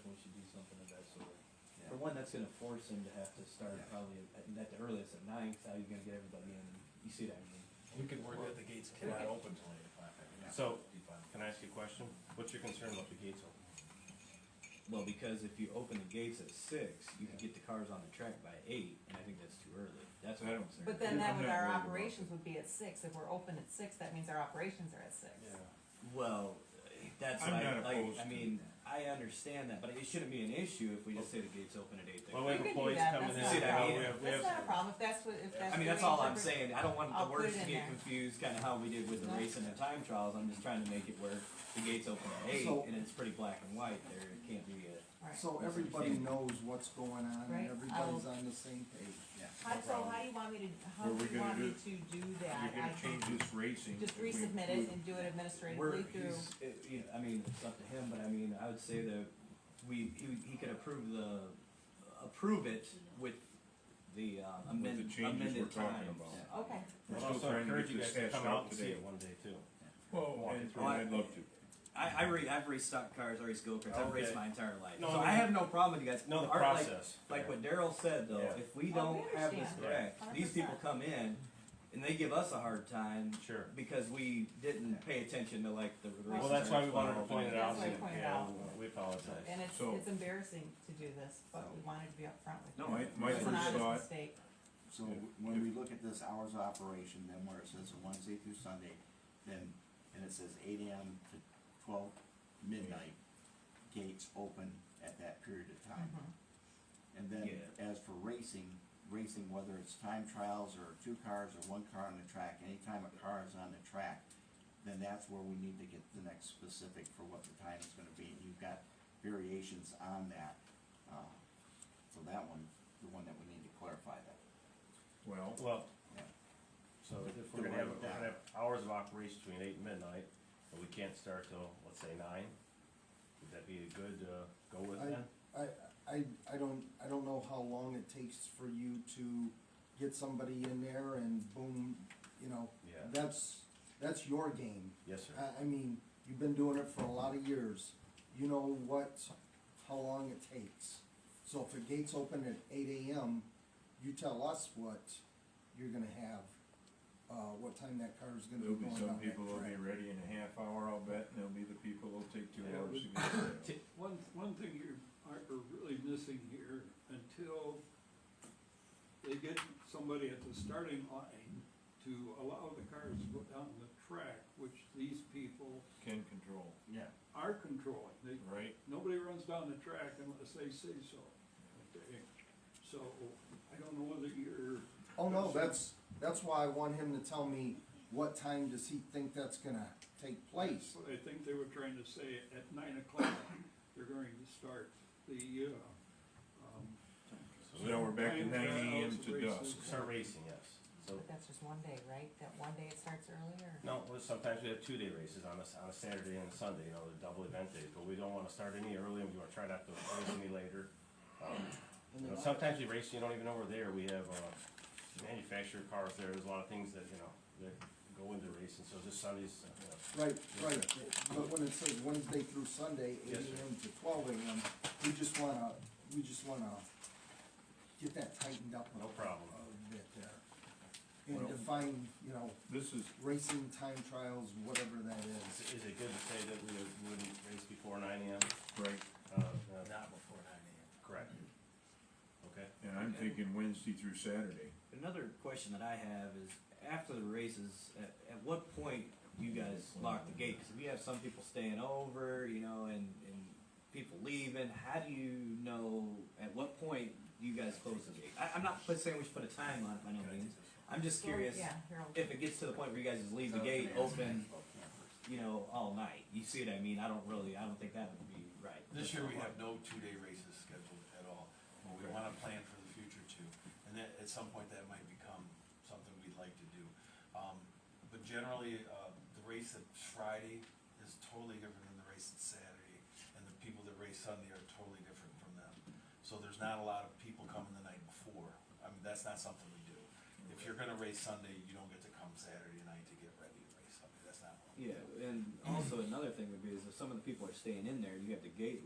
something of that sort. Yeah. For one, that's gonna force him to have to start Yeah. probably at, at the earliest at ninth, how you gonna get everybody in, you see what I mean? We could work that the gates cannot open till eight o'clock. I mean, So, that'd be fine. Can I ask you a question? What's your concern about the gates open? Well, because if you open the gates at six, you can get the cars on the track by eight, and I think that's too early, that's what I'm concerned. But then that would, our operations would be at six, if we're open at six, that means our operations are at six. Well, that's I'm like, not like, opposed I to mean, I understand that, but it shouldn't be an issue if we just say the gates open at eight Well, thirty. we have We could do employees that, coming in, that's not a now, we problem. have, we That's have. not a problem, if that's what, if that's. I mean, the that's way all I'm interpret- saying, I don't want I'll the put words it to in get there. confused, kinda how we did with the No. race and the time trials, I'm just trying to make it where the gates open at eight, So- and it's pretty black and white there, it can't be a. Right. So everybody knows what's going on, Right, and I'll- everybody's on the same page. Yeah. How, so how do you want me to, how Were we do you gonna want do- me to do that? You're gonna I change can this racing. Just if we resubmit it include- and do it We're, administratively through, he's, it- you know, I mean, it's up to him, but I mean, I would say that we, he, would- he could approve the, approve it with the uh, With the amended, changes we're amended talking times. about. okay, We're I'd still also trying to encourage get you this guys to hashed come out out today. and see it One day too. Walk And- it through. Well, I'd love to. I, I re, I've restocked cars, I race go-karts, I've raced Okay. my entire life, so No, I I mean- have no problem with you guys. No, the Art, like- process. Like what Daryl said though, Yeah. if we Oh, we don't have this understand. Yeah. correct, these people 100%. come in and they give us a hard time Sure. because we didn't pay attention to like the. the Well, races that's that why are we wanted to involved. point it out. That's why I pointed it Yeah, out. We apologize. and it's, So- it's embarrassing to do this, but we wanted to be upfront with you. No, I- my It's an first honest thought- mistake. So If- when we look at this hours of operation, then where it says Wednesday through Sunday, then, and it says eight AM to twelve midnight, gates open at that period of time. Mhm. And then Yeah. as for racing, racing, whether it's time trials or two cars or one car on the track, anytime a car is on the track, then that's where we need to get the next specific for what the time is gonna be, and you've got variations on that. Uh, So that one, the one that we need to clarify that. Well. Well, Yeah. so if Do we're gonna away have, with we're that. gonna have hours of operation between eight and midnight, and we can't start till, let's say, nine, would that be a good, uh, go with I- then? I, I, I don't, I don't know how long it takes for you to get somebody in there and boom, you know, Yeah. that's, that's your game. Yes, sir. I, I mean, you've been doing it for a lot of years, you know what, how long it takes. So if the gates open at eight AM, you tell us what you're gonna have, uh, what time that car is gonna There'll be be going some on that people that'll be track. ready in a half hour, I'll bet, and there'll be the people that'll take two Yeah. hours to get there. One, one thing you are are really missing here, until they get somebody at the starting line to allow the cars to go down the track, which these people Can control, Yeah. are controlling. They, right? nobody runs down the track unless they say so. Okay? So I don't know whether you're. Oh, no, that's, that's why I want him to tell me what time does he think that's gonna take place. What I think they were trying to say, at nine o'clock, they're going to start the, uh, um, So now we're back to Time nine AM trials, to races. dusk. Start racing, yes, so, But that's just one day, right? That one day it starts earlier? no, well, sometimes we have two-day races on a, s- on a Saturday and a Sunday, you know, the double event days, but we don't wanna start any early, and we wanna try not to race any later. Um, You know, sometimes you race, you don't even know we're there, we have, uh, manufactured cars there, there's a lot of things that, you know, that go into racing, so this Sunday's, uh, you know, Right, right, but when it says Wednesday through Sunday, eight Yes, sir. AM to twelve AM, we just wanna, we just wanna get that tightened up. a- No problem. A bit there. And Well- define, you know, This is, racing time trials, whatever that is. Is is it good to say that we wouldn't race before nine AM? right, Uh, uh, Not before nine AM. Correct. Okay. and I'm thinking Wednesday through Saturday. Another question that I have is after the races, at, at what point do you guys lock the gate? Because if you have some people staying over, you know, and, and people leaving, how do you know at what point do you guys close the gate? I, I'm not put- saying we should put a time on it Mm-hmm. by no means. I'm just So, curious Yeah, Harold. if it gets to the point where you guys just leave the Oh, gate open, you know, all night. You see what I mean? I don't really, I don't think that would be right. This year, we have no two-day races scheduled at all, but we wanna plan for the future too. And that, at some point, that might become something we'd like to do. Um, but generally, uh, the race at Friday is totally different than the race at Saturday, and the people that race Sunday are totally different from them. So there's not a lot of people coming the night before, I mean, that's not something we do. If you're gonna race Sunday, you don't get to come Saturday night to get ready to race Sunday, that's not what we do. Yeah, and also another thing would be is if some of the people are staying in there, you have the gate